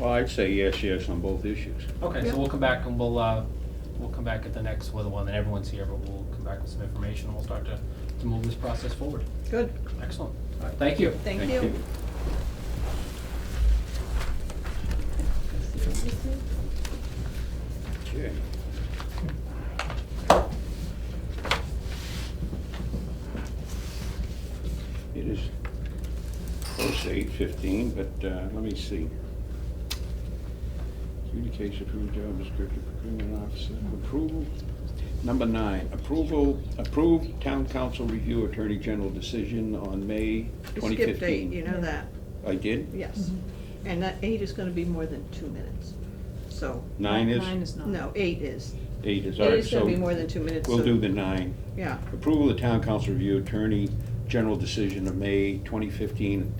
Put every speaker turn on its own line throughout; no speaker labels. Well, I'd say yes, yes on both issues.
Okay,
Yeah.
so we'll come back and we'll, uh, we'll come back at the next, well, the one that everyone's here, but we'll come back with some information and we'll start to, to move this process forward.
Good.
Excellent. All right, thank you.
Thank you.
Okay. It is close to eight fifteen, but uh, let me see. Adjudication approved job description procurement officer approval. Number nine, approval, approved town council review attorney general decision on May
You
twenty
skipped eight,
fifteen.
you know that,
I did?
yes.
Mm-hmm.
And that eight is gonna be more than two minutes, so,
Nine
Nine
is,
is not.
no, eight is.
eight is, all
Eight
right,
is gonna
so
be more than two minutes.
we'll
so-
do the nine.
Yeah,
Approval of the town council review attorney general decision of May 2015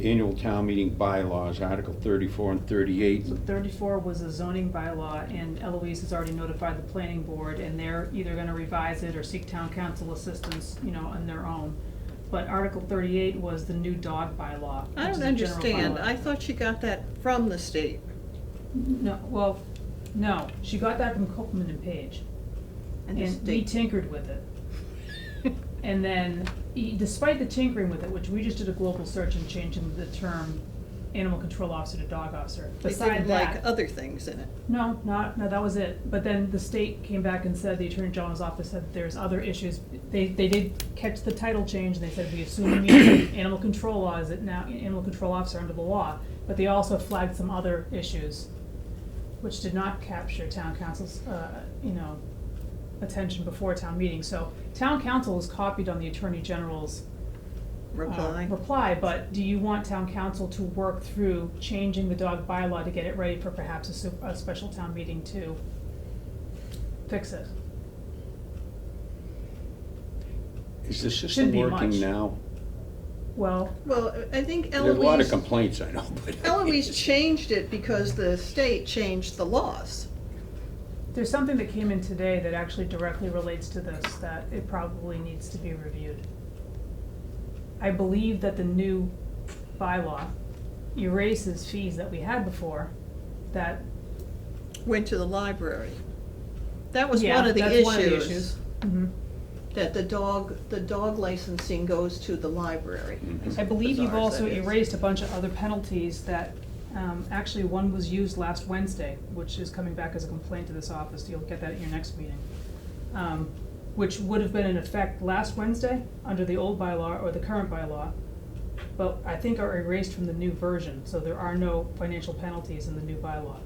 annual town meeting bylaws, Article 34 and 38.
So thirty-four was a zoning bylaw, and Eloise has already notified the planning board, and they're either gonna revise it or seek town council assistance, you know, on their own. But Article thirty-eight was the new dog bylaw.
I
which is
don't
a general
understand,
bylaw.
I thought she got that from the state.
No, well, no, she got that from Copman and Page,
And the
and we
state-
tinkered with it. And then, e- despite the tinkering with it, which we just did a global search and changing the term animal control officer to dog officer,
They
beside
didn't
that.
like other things in it.
No, not, no, that was it. But then the state came back and said, the Attorney General's office said there's other issues. They, they did catch the title change, and they said, we assume you mean animal control law, is it now animal control officer under the law? But they also flagged some other issues, which did not capture town council's, uh, you know, attention before town meeting. So town council is copied on the Attorney General's uh,
Reply.
Reply, but do you want town council to work through changing the dog bylaw to get it ready for perhaps a su- a special town meeting to fix it?
Is the
Shouldn't
system
be
working
much.
now?
Well,
Well, I think
There's a lot of
Eloise,
complaints, I know, but.
Eloise changed it because the state changed the laws.
there's something that came in today that actually directly relates to this, that it probably needs to be reviewed. I believe that the new bylaw erases fees that we had before, that
went to the library. That was
Yeah,
one of the
that's one of the
issues,
issues. Mhm.
that the dog, the dog licensing goes to the library.
Mhm.
I believe you've
Bizarre as
also
that is.
erased a bunch of other penalties that, um, actually, one was used last Wednesday, which is coming back as a complaint to this office, you'll get that at your next meeting. Um, which would have been in effect last Wednesday, under the old bylaw or the current bylaw, but I think are erased from the new version, so there are no financial penalties in the new bylaw.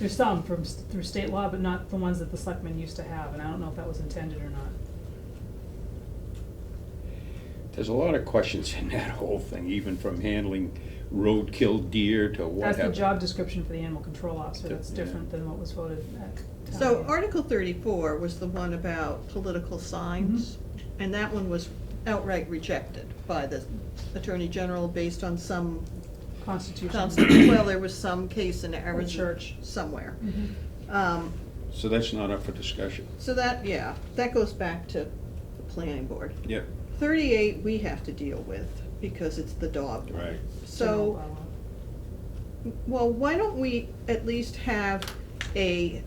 There's some from, s- through state law, but not the ones that the selectmen used to have, and I don't know if that was intended or not.
There's a lot of questions in that whole thing, even from handling roadkill deer to what
That's the
have.
job description for the animal control officer, that's
Yeah.
different than what was voted at town meeting.
So Article thirty-four was the one about political signs,
Mm-hmm.
and that one was outright rejected by the Attorney General based on some,
Constitution.
well, there was some case in Arizona.
church.
Somewhere.
Mhm.
Um,
So that's not up for discussion.
so that, yeah, that goes back to the planning board.
Yep,
Thirty-eight, we have to deal with, because it's the dog. one.
right.
So.
General bylaw.
Well, why don't we at least have a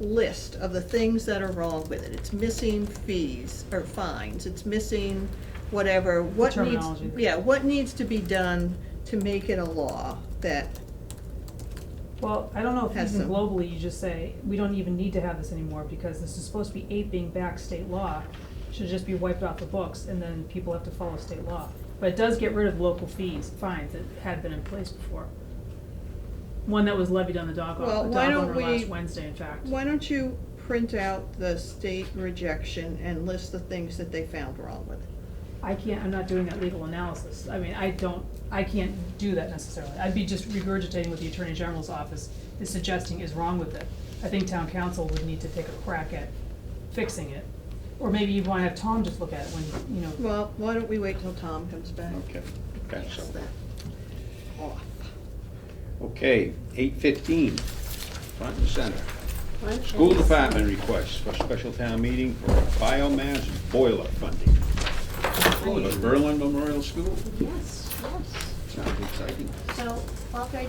list of the things that are wrong with it? It's missing fees or fines, it's missing whatever, what needs,
terminology.
yeah, what needs to be done to make it a law that,
Well, I don't know if
Has
even
some-
globally, you just say, we don't even need to have this anymore, because this is supposed to be aping back state law. Should just be wiped off the books, and then people have to follow state law. But it does get rid of local fees, fines that had been in place before. One that was levied on the dog,
Well,
the
why
dog
don't
owner last
we-
Wednesday, in fact.
why don't you print out the state rejection and list the things that they found wrong with it?
I can't, I'm not doing that legal analysis. I mean, I don't, I can't do that necessarily. I'd be just regurgitating what the Attorney General's office is suggesting is wrong with it. I think town council would need to take a crack at fixing it. Or maybe you'd wanna have Tom just look at it when, you know,
Well, why don't we wait till Tom comes back?
Okay, okay, so,
Pass that off.
okay, eight fifteen, front and center. School Department requests for special town meeting for biomass boiler funding. Oh, the Berlin Memorial School?
Yes, yes.
It's
sounds exciting.
So, Bob, I